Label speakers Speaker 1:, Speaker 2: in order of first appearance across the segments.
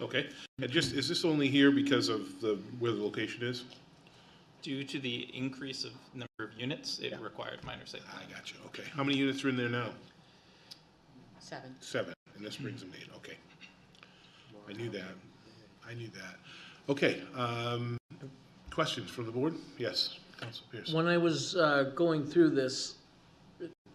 Speaker 1: Okay, and just, is this only here because of the, where the location is?
Speaker 2: Due to the increase of number of units, it required minor site plan.
Speaker 1: I got you, okay. How many units are in there now?
Speaker 3: Seven.
Speaker 1: Seven, and this brings them to eight, okay. I knew that, I knew that. Okay, um, questions from the board? Yes, Council Pierce.
Speaker 4: When I was uh, going through this,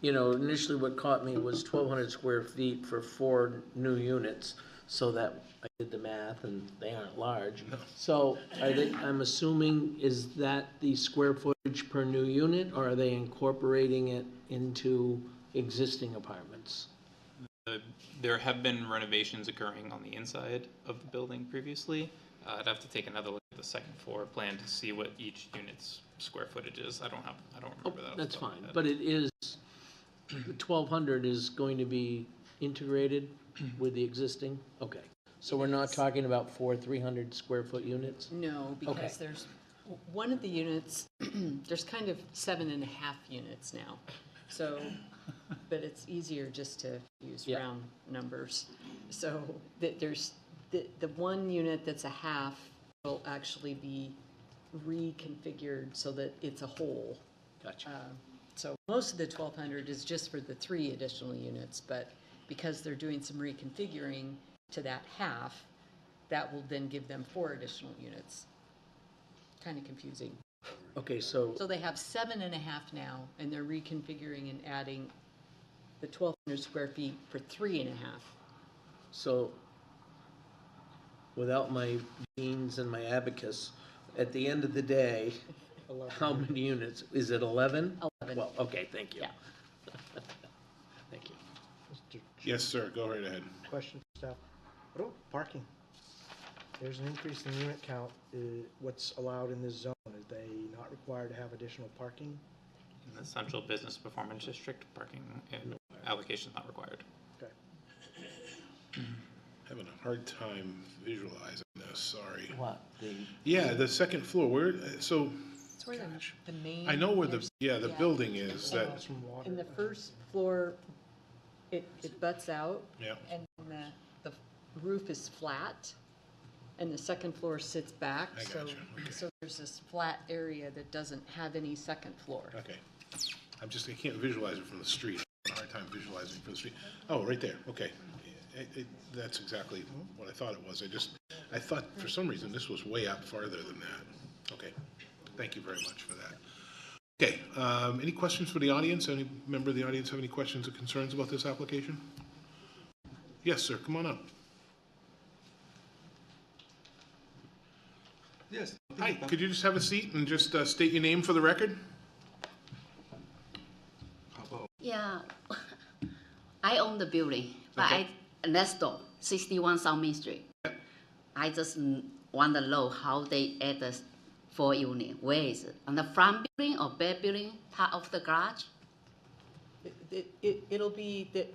Speaker 4: you know, initially what caught me was twelve hundred square feet for four new units. So that, I did the math and they aren't large. So I think, I'm assuming, is that the square footage per new unit? Or are they incorporating it into existing apartments?
Speaker 2: Uh, There have been renovations occurring on the inside of the building previously. Uh, I'd have to take another look at the second floor plan to see what each unit's square footage is. I don't have, I don't
Speaker 4: Oh,
Speaker 2: remember that. off the
Speaker 4: that's
Speaker 2: top of my
Speaker 4: fine,
Speaker 2: head.
Speaker 4: but it is, twelve hundred is going to be integrated with the existing? Okay, so we're not talking about four three hundred square foot units?
Speaker 3: No,
Speaker 4: Okay.
Speaker 3: because there's, w- one of the units, there's kind of seven and a half units now. So, but it's easier just to use
Speaker 4: Yeah.
Speaker 3: round numbers. So that there's, the, the one unit that's a half will actually be reconfigured so that it's a whole.
Speaker 4: Gotcha.
Speaker 3: So most of the twelve hundred is just for the three additional units, but because they're doing some reconfiguring to that half, that will then give them four additional units. Kind of confusing.
Speaker 4: Okay, so,
Speaker 3: So they have seven and a half now, and they're reconfiguring and adding the twelve hundred square feet for three and a half.
Speaker 4: so, without my beans and my abacus, at the end of the day, how many units? Is it eleven?
Speaker 3: Eleven.
Speaker 4: Well, okay, thank you.
Speaker 3: Yeah.
Speaker 4: Thank you.
Speaker 5: Mr. Ch-
Speaker 1: Yes, sir, go right ahead.
Speaker 5: Question for staff. What about parking? There's an increase in unit count, uh, what's allowed in this zone? Are they not required to have additional parking?
Speaker 2: In the central business performance district, parking and allocation is not required.
Speaker 5: Okay.
Speaker 1: Having a hard time visualizing this, sorry.
Speaker 4: What, the,
Speaker 1: Yeah, the second floor, where, so,
Speaker 3: It's where the, the main.
Speaker 1: I know where the, yeah, the building is,
Speaker 5: It's
Speaker 1: that,
Speaker 5: from water.
Speaker 3: In the first floor, it, it butts out,
Speaker 1: yeah,
Speaker 3: And uh, the, the roof is flat, and the second floor sits back,
Speaker 1: I
Speaker 3: so,
Speaker 1: gotcha, okay.
Speaker 3: so there's this flat area that doesn't have any second floor.
Speaker 1: okay. I'm just, I can't visualize it from the street, I'm having a hard time visualizing from the street. Oh, right there, okay. It- it- That's exactly what I thought it was, I just, I thought, for some reason, this was way up farther than that. Okay, thank you very much for that. Okay, um, any questions for the audience? Any member of the audience have any questions or concerns about this application? Yes, sir, come on up.
Speaker 6: Yes.
Speaker 1: Hi, could you just have a seat and just uh, state your name for the record?
Speaker 7: Yeah, I own the building, but I, next door, 61 South Main Street. I just want to know how they add the four unit. Where is it? On the front building or back building, part of the garage?
Speaker 3: It- It, it, it'll be, the-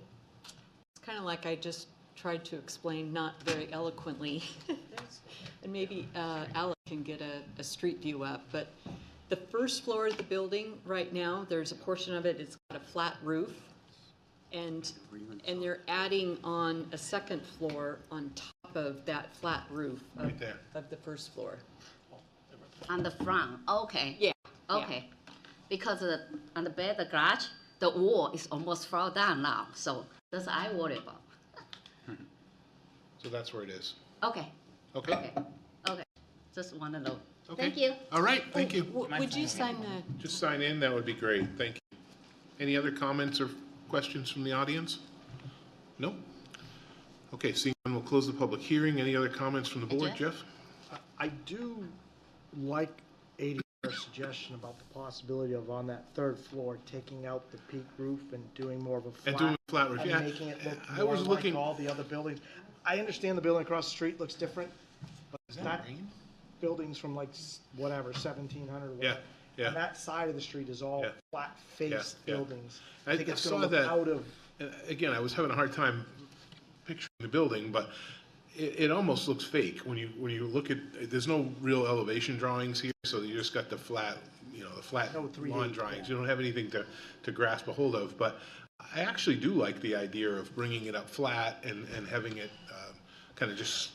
Speaker 3: it's kind of like I just tried to explain, not very eloquently. And maybe uh, Alec can get a, a street view up, but the first floor of the building, right now, there's a portion of it, it's got a flat roof. And, and they're adding on a second floor on top of that flat roof of-
Speaker 1: Right there.
Speaker 3: of the first floor.
Speaker 7: On the front, okay.
Speaker 3: Yeah. yeah.
Speaker 7: Okay. Because the, on the back, the garage, the wall is almost fall down now, so that's I worry about.
Speaker 1: So that's where it is.
Speaker 7: Okay,
Speaker 1: Okay?
Speaker 7: okay, okay. Just want to know.
Speaker 1: Okay.
Speaker 7: Thank you.
Speaker 1: All right, thank you.
Speaker 3: W- Would you sign the?
Speaker 1: Just sign in, that would be great, thank you. Any other comments or questions from the audience? No? Okay, seeing none, we'll close the public hearing. Any other comments from the board,
Speaker 7: Jeff?
Speaker 1: Jeff?
Speaker 5: I do like ADR's suggestion about the possibility of on that third floor, taking out the peak roof and doing more of a flat.
Speaker 1: And doing flat roof,
Speaker 5: and
Speaker 1: yeah.
Speaker 5: making it look
Speaker 1: I
Speaker 5: more
Speaker 1: was
Speaker 5: like
Speaker 1: looking-
Speaker 5: all the other buildings. I understand the building across the street looks different, but it's not buildings from like s- whatever, seventeen hundred or
Speaker 1: Yeah,
Speaker 5: whatever.
Speaker 1: yeah.
Speaker 5: And that side of the street is all
Speaker 1: Yeah.
Speaker 5: flat
Speaker 1: Yeah,
Speaker 5: faced
Speaker 1: yeah.
Speaker 5: buildings.
Speaker 1: I-
Speaker 5: I think
Speaker 1: I
Speaker 5: it's
Speaker 1: saw
Speaker 5: gonna look
Speaker 1: that.
Speaker 5: out of,
Speaker 1: Uh, Again, I was having a hard time picturing the building, but it, it almost looks fake when you, when you look at, there's no real elevation drawings here, so you just got the flat, you know, the flat
Speaker 5: No 3D,
Speaker 1: lawn drawings. You don't have anything to, to grasp a hold of, but I actually do like the idea of bringing it up flat and, and having it, um, kind of just